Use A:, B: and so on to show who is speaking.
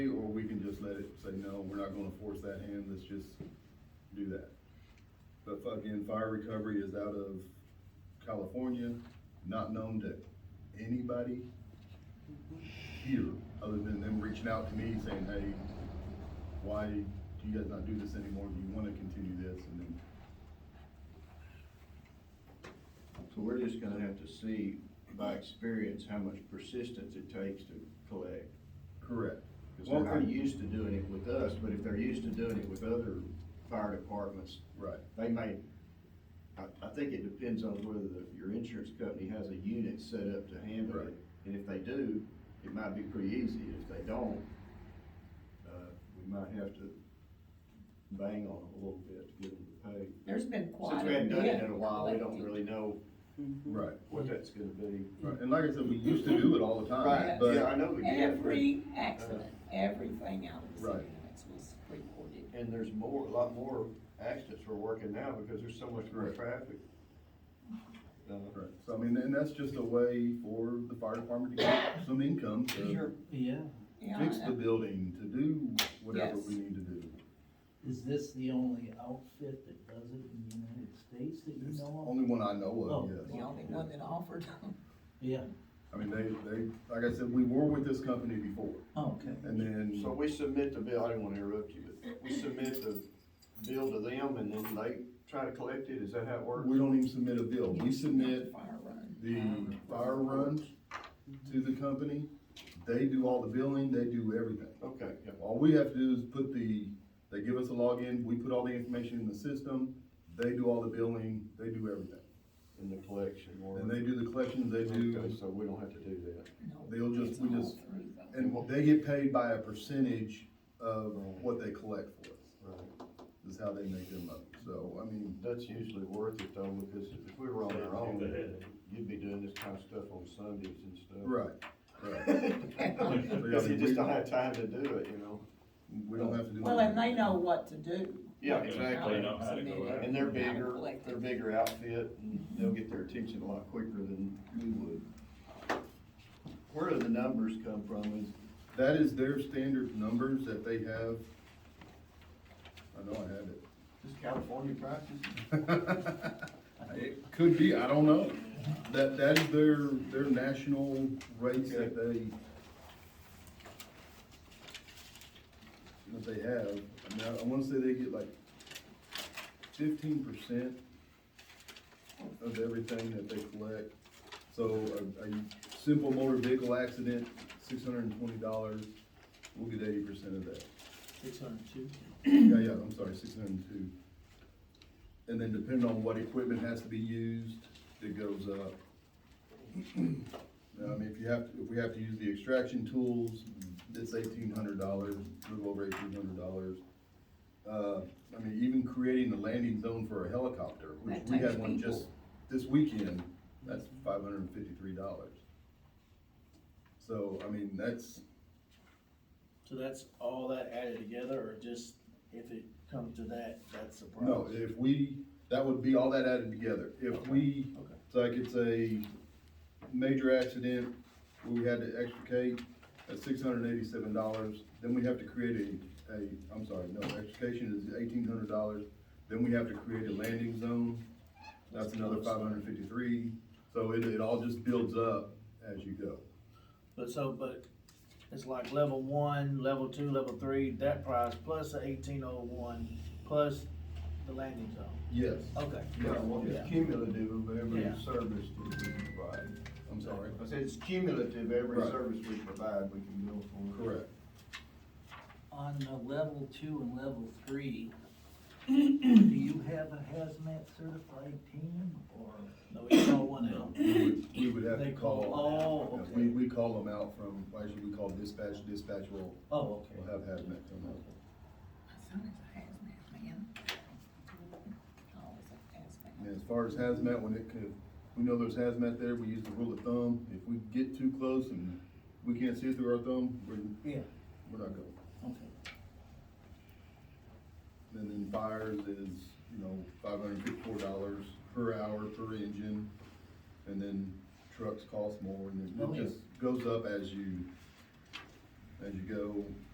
A: not gonna force that hand, let's just do that. But fucking fire recovery is out of California, not known to anybody here, other than them reaching out to me saying, hey, why do you guys not do this anymore? Do you wanna continue this? And then,
B: So we're just gonna have to see by experience how much persistence it takes to collect.
A: correct.
B: Cause they're not used to doing it with us, but if they're used to doing it with other fire departments,
A: Right,
B: they may, I, I think it depends on whether the- your insurance company has a unit set up to handle
A: Right.
B: it. And if they do, it might be pretty easy. If they don't, uh, we might have to bang on them a little bit to get them to pay.
C: There's been
B: Since
C: quite
B: we
C: a
B: haven't done it
C: bit.
B: in a while, we don't
C: collected.
B: really know
C: Mhm.
A: right,
B: what that's gonna be.
A: right. And like I said, we used to do it all the time,
C: Right,
B: Yeah,
A: but,
B: I know we did, but-
C: Every accident, everything out of the
A: Right.
C: city limits was recorded.
B: and there's more, a lot more accidents we're working now because there's so much more
A: Right.
B: traffic. Uh,
A: right. So I mean, and that's just a way for the fire department to get some income to
B: Sure,
D: Yeah,
C: Yeah,
A: fix the
C: and-
A: building, to do whatever
C: Yes.
A: we need to do.
D: is this the only outfit that does it in the United States that you
A: It's the
D: know of?
A: only one I know
D: Oh.
A: of,
C: The
A: yes.
C: only one that offered,
D: Yeah,
A: I mean, they, they, like I said, we were with this company before,
D: Oh, okay.
A: and then,
B: so we submit the bill, I didn't wanna interrupt you, but we submit the bill to them and then they try to collect it, is that how it works?
A: we don't even submit a bill. We submit
C: fire run.
A: the fire runs to the company. They do all the billing, they do everything.
B: Okay, yeah,
A: All we have to do is put the, they give us a login, we put all the information in the system, they do all the billing, they do everything.
B: in the collection or.
A: And they do the collections, they
B: Okay,
A: do,
B: so we don't have to do that.
C: No,
A: They'll just-
C: it's
A: we
C: all
A: just-
C: through the-
A: and they get paid by a percentage of what they collect for us,
B: Right.
A: is how they make their money. So, I mean,
B: That's usually worth it though, because if we were on our own, you'd be doing this kind of stuff on Sundays and stuff.
A: right, right.
C: Yeah.
A: But,
B: Cause
A: I
B: you
A: mean,
B: just
A: we-
B: don't have time to do it, you know?
A: We don't have to do.
C: Well, and they know what to do.
B: Yeah,
C: How
B: exactly.
C: to
E: know how to go
C: submit it,
E: out.
B: And they're
C: how to
B: bigger,
C: collect
B: they're
C: it.
B: bigger outfit, and they'll get their attention a lot quicker than we would. Where do the numbers come from? Is,
A: That is their standard numbers that they have. I know I have it.
B: is California practice?
A: It could be, I don't know. That, that is their, their national rates that they, that they have. I mean, I- I wanna say they get like fifteen percent of everything that they collect. So a, a simple motor vehicle accident, six hundred and twenty dollars, we'll get eighty percent of that.
D: Six hundred two.
A: Yeah, yeah, I'm sorry, six hundred and two. And then depending on what equipment has to be used, it goes up. Now, I mean, if you have, if we have to use the extraction tools, it's eighteen hundred dollars, a little over eighteen hundred dollars. Uh, I mean, even creating the landing zone for a helicopter, which
C: That
A: we
C: takes
A: had one
C: people.
A: just this weekend, that's five hundred and fifty-three dollars. So, I mean, that's,
D: So that's all that added together, or just if it comes to that, that's the price?
A: No, if we, that would be all that added together. If we,
D: Okay.
A: so I could say, major accident, where we had to extricate at six hundred and eighty-seven dollars, then we have to create a, a, I'm sorry, no, extrication is eighteen hundred dollars. Then we have to create a landing zone, that's another five hundred and fifty-three. So it, it all just builds up as you go.
D: But so, but it's like level one, level two, level three, that price, plus the eighteen oh one, plus the landing zone.
A: Yes,
D: Okay.
B: Yeah, well, it's cumulative of every
D: Yeah.
B: service that we provide.
A: I'm sorry.
B: I said it's cumulative, every
A: Right.
B: service we provide, we can bill for.
A: Correct.
F: On the level two and level three, do you have a hazmat certified team or?
D: No, it's all one
A: No,
D: out.
A: we would, we would have to
D: They
A: call.
D: call- oh,
A: Yeah,
D: okay.
A: We, we call them out from, why should we call dispatch, dispatch will,
D: Oh,
A: will
D: okay.
A: have hazmat come out.
C: My son is a hazmat man. Always a hazmat.
A: And as far as hazmat, when it could, we know there's hazmat there, we use the rule of thumb, if we get too close and we can't see it through our thumb, we're,
D: Yeah,
A: we're not going.
D: okay.
A: And then fires is, you know, five hundred fifty-four dollars per hour per engine, and then trucks cost more, and then
D: Oh,
A: it
D: yeah.
A: just goes up as you, as you go.